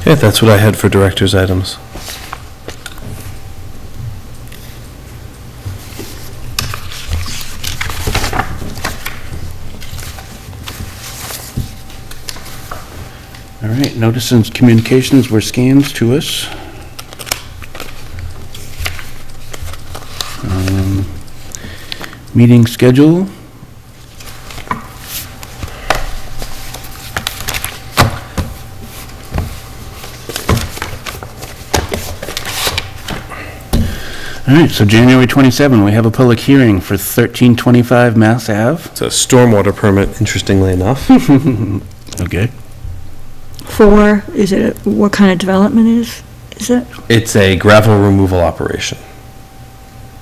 Okay, that's what I had for director's items. All right, notice and communications were scanned to us. Um, Meeting schedule, all right, so January 27, we have a public hearing for 1325 Mass Ave. It's a stormwater permit, interestingly enough. Okay. For, is it, what kind of development is, is it? It's a gravel removal operation.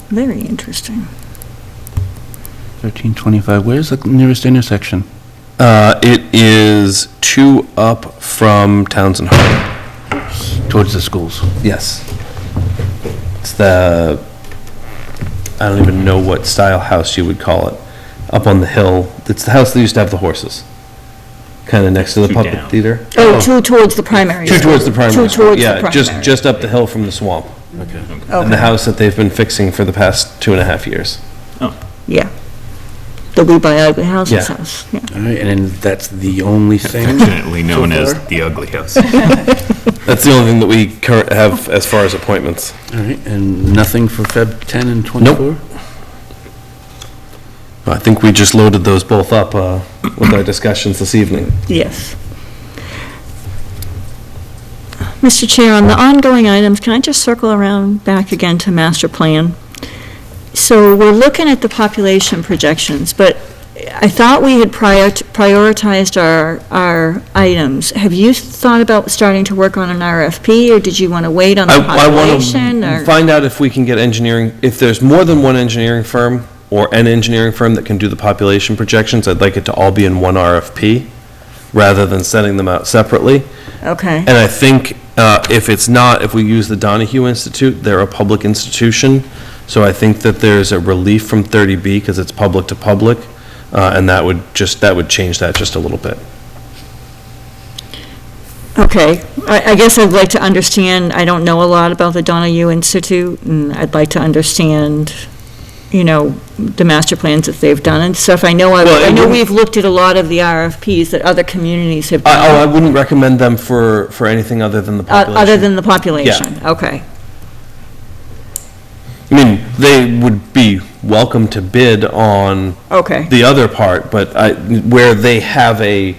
Very interesting. 1325, where's the nearest intersection? Uh, it is two up from Townsend Harbor. Towards the schools. Yes. It's the, I don't even know what style house you would call it, up on the hill. It's the house that used to have the horses, kind of next to the Two puppet down. theater. Oh, two towards the primary. Two towards the primary. Two school. towards the Yeah, just, primary. just up the hill from the swamp. Okay. And the Okay, house that they've been fixing for the past two and a half years. yeah. The We Buy Ugly Houses Yeah. house, yeah. All right, and then that's the only thing? Affectionately known as far? the ugly house. That's the only thing that we current have as far as appointments. All right, and nothing for Feb 10 and 24? I think we just loaded those both up uh, with our discussions this evening. Yes. Mr. Chair, on the ongoing items, can I just circle around back again to master plan? So we're looking at the population projections, but I thought we had prior- prioritized our, our items. Have you thought about starting to work on an RFP, or did you want to wait on the I, I population? want to or- find out if we can get engineering, if there's more than one engineering firm or an engineering firm that can do the population projections, I'd like it to all be in one RFP rather than sending them out separately. Okay, And I think uh, if it's not, if we use the Donahue Institute, they're a public institution, so I think that there's a relief from 30B because it's public to public, uh, and that would just, that would change that just a little bit. okay. I, I guess I'd like to understand, I don't know a lot about the Donahue Institute, and I'd like to understand, you know, the master plans that they've done and stuff. I know, Well, I it I know wouldn't- we've looked at a lot of the RFPs that other communities have I- Oh, I done, wouldn't recommend them for, for anything other than the o- population. Uh, other than the population. Okay, I mean, they would be welcome to bid on okay, the other part, but I, where they have a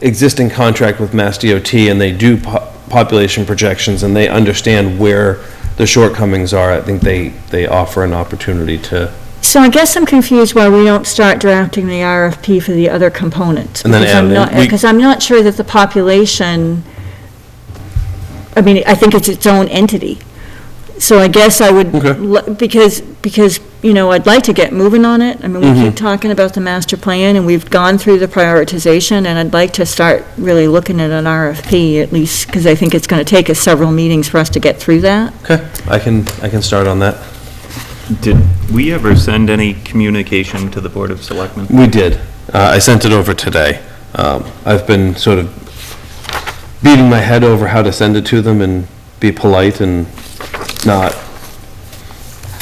existing contract with Mass DOT and they do po- population projections and they understand where the shortcomings are, I think they, they offer an opportunity to, So I guess I'm confused why we don't start drafting the RFP for the other components. And then because add I'm it in. not- We- Because I'm not sure that the population, I mean, I think it's its own entity. So I guess I would, Okay. l- because, because, you know, I'd like to get moving on it. I mean, Mm-hmm. we keep talking about the master plan, and we've gone through the prioritization, and I'd like to start really looking at an RFP, at least, because I think it's going to take us several meetings for us to get through that. okay, I can, I can start on that. Did we ever send any communication to the Board of Selectmen? We did. Uh, I sent it over today. Um, I've been sort of beating my head over how to send it to them and be polite and not,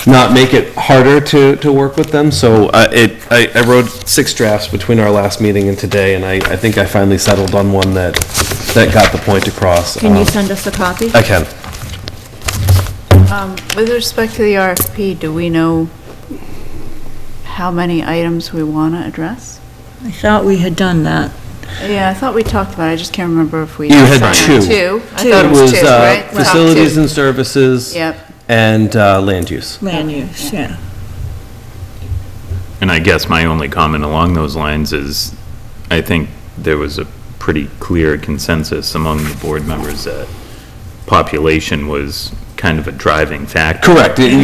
not make it harder to, to work with them. So uh, it, I, I wrote six drafts between our last meeting and today, and I, I think I finally settled on one that, that got the point across. Can you Um, send us a copy? I can. Um, With respect to the RFP, do we know how many items we want to address? I thought we had done that. Yeah, I thought we talked about it, I just can't remember if we. You had decided. two. Two? I Two. thought it was two, uh, right? Top two. Facilities and services. Yep, And uh, land use. Land use, yeah. And I guess my only comment along those lines is, I think there was a pretty clear consensus among the board members that population was kind of a driving factor. Correct. You-